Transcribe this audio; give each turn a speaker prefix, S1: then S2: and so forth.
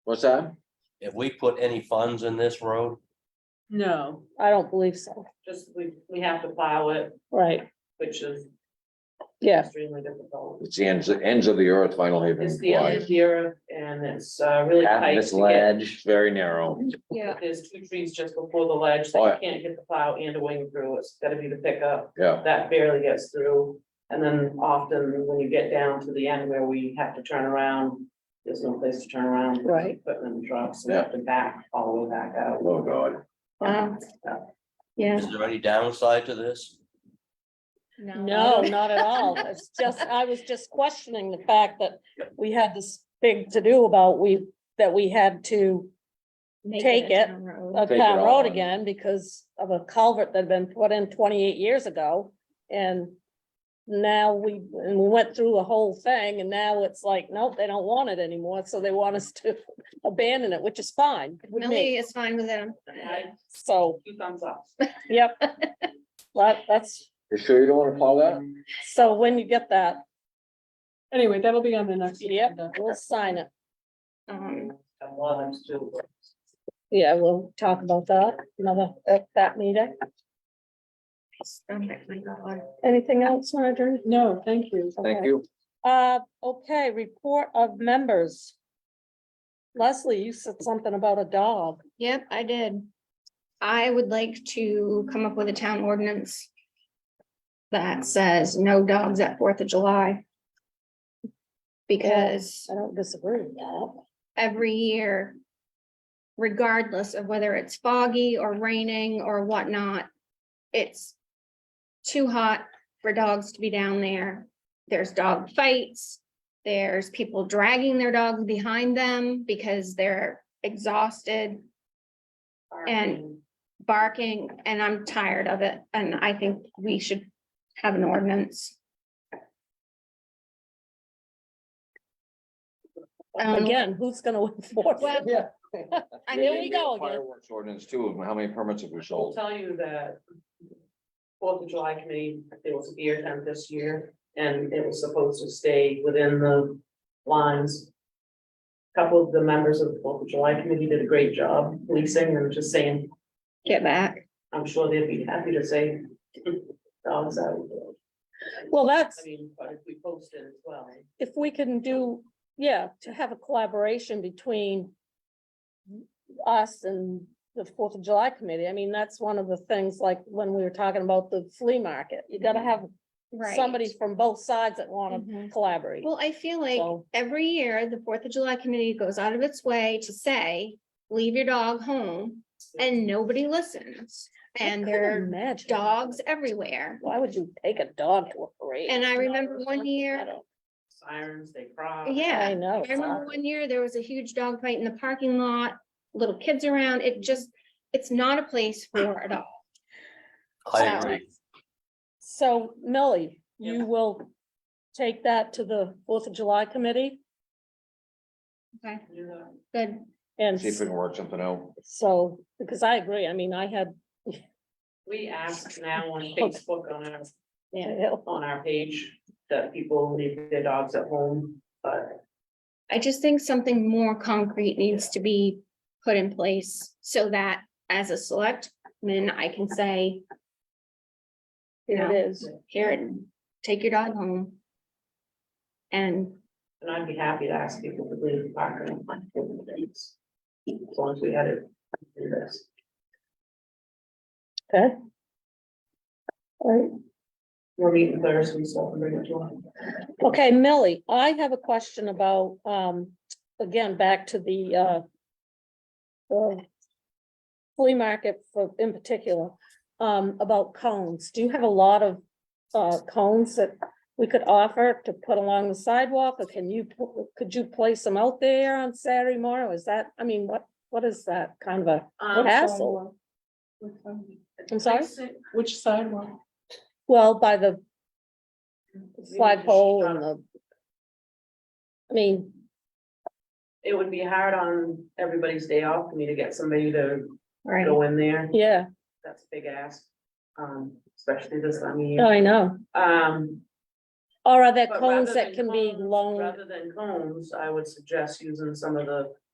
S1: What's that?
S2: If we put any funds in this road,
S3: No,
S4: I don't believe so,
S3: just we, we have to plow it,
S4: right,
S3: which is
S4: yeah,
S3: extremely difficult.
S1: It's the ends, the ends of the earth, Vinyl Haven.
S3: It's the end
S1: Drive.
S3: of the earth and it's uh, really
S1: Half of
S3: tight
S1: It's
S3: to get.
S1: ledge, very narrow.
S4: yeah,
S3: There's two trees just before the ledge
S1: Oh,
S3: that
S1: yeah.
S3: you can't get the plow and a wing through. It's gotta be the pickup.
S1: Yeah,
S3: That barely gets through. And then often when you get down to the end where we have to turn around, there's no place to turn around.
S4: Right.
S3: Equipment and trucks, we have to back all the way back out.
S1: oh God.
S4: wow, yeah,
S2: is there any downside to this?
S4: no, not at all, it's just, I was just questioning the fact that we had this big to-do about we, that we had to Take it. a
S1: Take it
S4: town
S1: all
S4: road
S1: on.
S4: again because of a culvert that had been put in twenty-eight years ago. And now we, and we went through the whole thing and now it's like, nope, they don't want it anymore, so they want us to abandon it, which is fine with
S5: Millie
S4: me.
S5: is fine with them.
S3: I-
S4: So,
S3: Two thumbs up.
S4: yep. That, that's,
S1: You sure you don't wanna plow that?
S4: so when you get that,
S6: Anyway, that'll be on the next.
S4: yep,
S6: agenda.
S4: we'll sign it.
S5: Um,
S3: And one of them's too.
S4: Yeah, we'll talk about that, another, at that meeting.
S5: okay, my God.
S4: Anything else, Marjorie?
S6: No, thank you.
S4: Okay.
S1: Thank you.
S4: Uh, okay, report of members. Leslie, you said something about a dog.
S5: Yep, I did. I would like to come up with a town ordinance that says no dogs at Fourth of July. Because
S4: I don't disagree with that.
S5: every year, regardless of whether it's foggy or raining or whatnot, it's too hot for dogs to be down there. There's dog fights. There's people dragging their dogs behind them because they're exhausted, And- barking, and I'm tired of it. And I think we should have an ordinance. Um,
S4: Again, who's gonna enforce it?
S5: Well,
S1: Yeah.
S5: I
S4: There
S5: mean,
S4: we go again.
S1: Fireworks ordinance too, of how many permits have we
S3: I'll
S1: sold?
S3: tell you that Fourth of July committee, there was a beer tent this year, and it was supposed to stay within the lines. A Couple of the members of the Fourth of July committee did a great job policing and just saying,
S5: get back.
S3: I'm sure they'd be happy to say dogs out.
S4: Well,
S3: I
S4: that's,
S3: mean, but if we post it as well,
S4: if we can do, yeah, to have a collaboration between us and the Fourth of July committee, I mean, that's one of the things, like, when we were talking about the flea market, you gotta have somebody from both sides that wanna
S5: Mhm.
S4: collaborate.
S5: Well, I feel like
S4: So,
S5: every year, the Fourth of July committee goes out of its way to say, leave your dog home, and nobody listens.
S4: I
S5: And
S4: couldn't
S5: there are
S4: imagine.
S5: dogs everywhere.
S4: Why would you take a dog to a parade?
S5: And I remember one
S4: I
S5: year,
S4: don't-
S3: sirens, they cry.
S4: I
S5: yeah,
S4: know.
S5: I remember one year, there was a huge dog fight in the parking lot, little kids around, it just, it's not a place for a dog.
S2: I
S5: So-
S2: agree.
S4: So Millie,
S3: Yeah.
S4: you will take that to the Fourth of July committee?
S5: Okay,
S3: You know,
S5: good.
S4: And
S1: See if we can work something out.
S4: so, because I agree, I mean, I had,
S3: We ask now on Facebook on our
S4: yeah,
S3: on our page that people leave their dogs at home, but
S5: I just think something more concrete needs to be put in place so that as a selectman, I can say. You
S4: it
S5: know,
S4: is.
S5: here and take your dog home. And
S3: and I'd be happy to ask people to leave the park and find different things. As long as we had it in this.
S4: Okay. All right.
S3: We're meeting Thursday, so I'll bring it to one.
S4: Okay, Millie, I have a question about, um, again, back to the, uh, the flea market for, in particular, um, about cones. Do you have a lot of, uh, cones that we could offer to put along the sidewalk? Or can you, pu- could you place them out there on Saturday morning? Is that, I mean, what, what is that kind of a
S3: Um,
S4: hassle? I'm sorry?
S6: Which sidewalk?
S4: Well, by the flagpole
S3: um,
S4: and the I mean,
S3: It would be hard on everybody's day off for me to get somebody to
S5: right,
S3: go in there.
S4: yeah,
S3: That's a big ask, um, especially this time of year.
S4: I know.
S3: Um,
S4: Or are there
S3: But
S4: Oh, cones
S3: rather
S4: that
S3: than
S4: can be
S3: cones-
S4: loaned?
S3: Rather than cones, I would suggest using some of the